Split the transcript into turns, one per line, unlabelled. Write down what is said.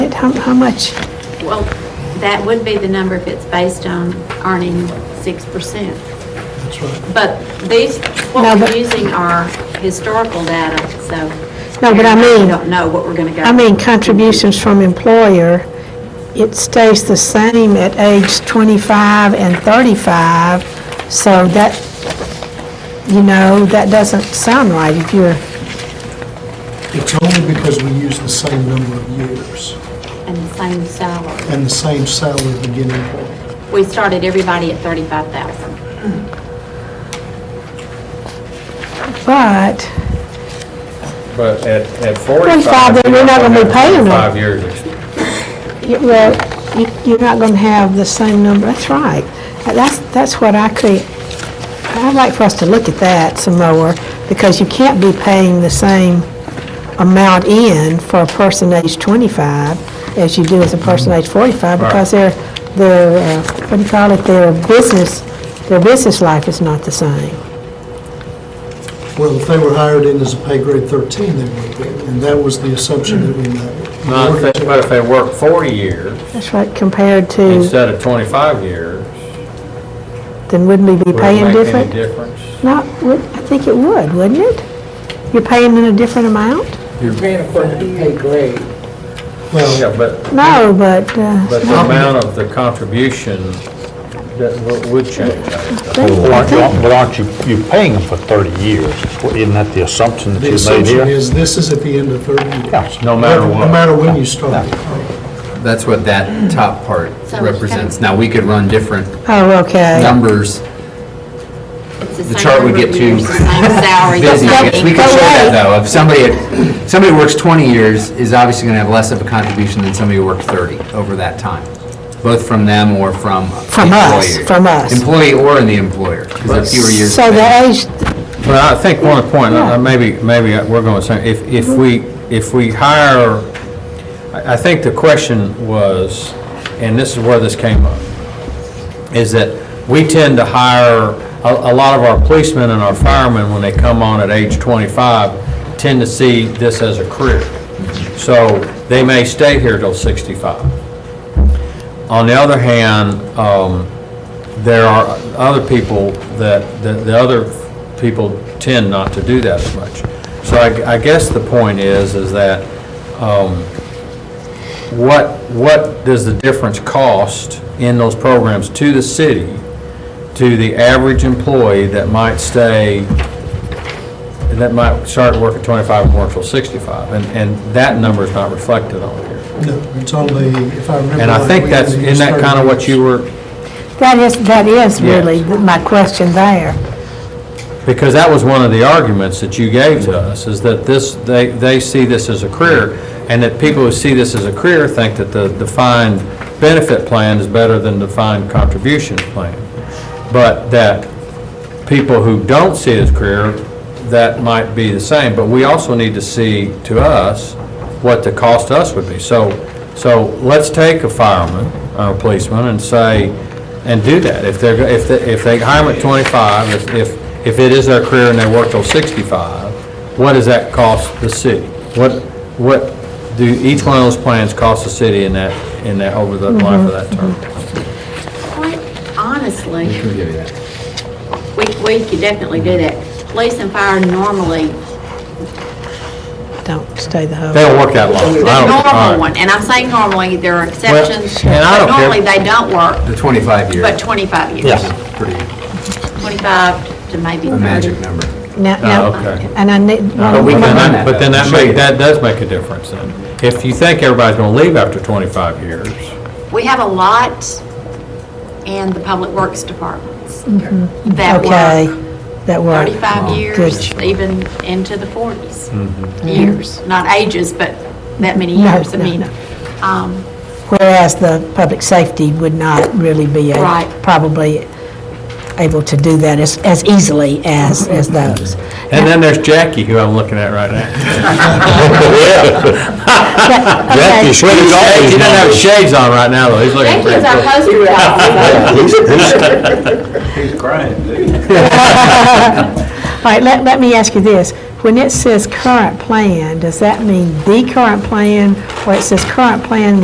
How, how much?
Well, that would be the number if it's based on earning six percent.
That's right.
But these,
No,
what
but-
we're using are historical data, so.
No, but I mean-
We don't know what we're gonna go.
I mean, contributions from employer, it stays the same at age 25 and 35, so that, you know, that doesn't sound right if you're,
It's only because we use the same number of years
And the same salary.
and the same salary beginning point.
We started everybody at thirty-five thousand.
but,
But at,
45,
at 45,
then we're
you're
not
not
gonna be
going to
paying them.
Five years. ex-
you- well, you- you're not going to have the same number, that's right. That's, that's what I could, I'd like for us to look at that some more, because you can't be paying the same amount in for a person age 25 as you do as a person age 45,
Right.
because their, their, uh, what do you call it, their business, their business life is not the same.
Well, if they were hired in as a pay grade 13, they would be, and that was the assumption that we made.
Now, if they- But if they work 40 years
That's right, compared to,
instead of 25 years,
then wouldn't we be
would it
paying
make any
different?
difference?
Not, would- I think it would, wouldn't it? You're paying in a different amount?
Paying according to pay grade.
Well,
Yeah, but,
No, but, uh,
but the amount of the contribution that w- would change. I think.
Well, aren't- Well, aren't you, you paying them for 30 years? Isn't that the assumption that
the
you made
assumption
here?
is this is at the end of 30 years.
Yeah.
No matter
No
what.
matter when you start.
That's what that top part
So it's
represents.
kind
Now, we could run different
oh, okay.
numbers.
It's
The
same
chart would
number of
get too
years, the Same salary.
busy.
but-
Yes, We could
but
show that,
wait.
though. If somebody, somebody who works 20 years is obviously going to have less of a contribution than somebody who worked 30 over that time, both from them or from
From us,
employer.
from us.
Employee or in the employer, because there are fewer years.
So the age,
Well, I think one point, uh, maybe, maybe we're going to say, if, if we, if we hire, I, I think the question was, and this is where this came up, is that we tend to hire, a, a lot of our policemen and our firemen, when they come on at age 25, tend to see this as a career. So they may stay here till 65. On the other hand, um, there are other people that, that the other people tend not to do that as much. So I, I guess the point is, is that, um, what, what does the difference cost in those programs to the city, to the average employee that might stay, that might start work at 25 and work till 65? And, and that number is not reflected on here.
No, it's only, if I remember.
And I
right,
think
we
that's,
only
isn't
use
that
30
kind of what
years.
you were,
that is, that is really
Yes.
th- my question there.
because that was one of the arguments that you gave to us, is that this, they, they see this as a career, and that people who see this as a career think that the defined benefit plan is better than defined contribution plan. But that people who don't see it as career, that might be the same, but we also need to see to us what the cost to us would be. So, so let's take a fireman, or a policeman, and say, and do that. If they're, if, they- if they hire them at 25, if- if, if it is their career and they work till 65, what does that cost the city? What, what do each one of those plans cost the city in that, in that, over the life of that term?
Quite honestly,
We'll give you that.
we, we could definitely do that. Police and fire normally
Don't stay the
They
whole,
don't work that long. I
The
don't- all right.
normal one, and I'm saying normally, there are exceptions,
and I
but
don't care.
normally they don't work
The 25 year
but
is
25 years.
Yes.
pretty
25 to maybe
a
30.
magic number.
now,
Oh,
now,
okay.
and I need.
But we
But
can-
then- But then that make, that does make a difference then. If you think everybody's gonna leave after 25 years,
We have a lot in the public works departments that
Mm-hmm. Okay,
work
that work.
35 years, even into the 40s,
Mm-hmm.
years, not ages, but that many
No,
years. I
no,
mean,
no.
um,
Whereas the public safety would not really be, a-
Right.
probably able to do that as, as easily as, as those.
and then there's Jackie, who I'm looking at right now.
Jack, you
Okay.
should
He
have all these
doesn't have
numbers.
shades on right now, though, he's
thank
looking
you,
pretty
as our
good.
poster child.
All right, let, let me ask you this. When it says current plan, does that mean the current plan, or it says current plan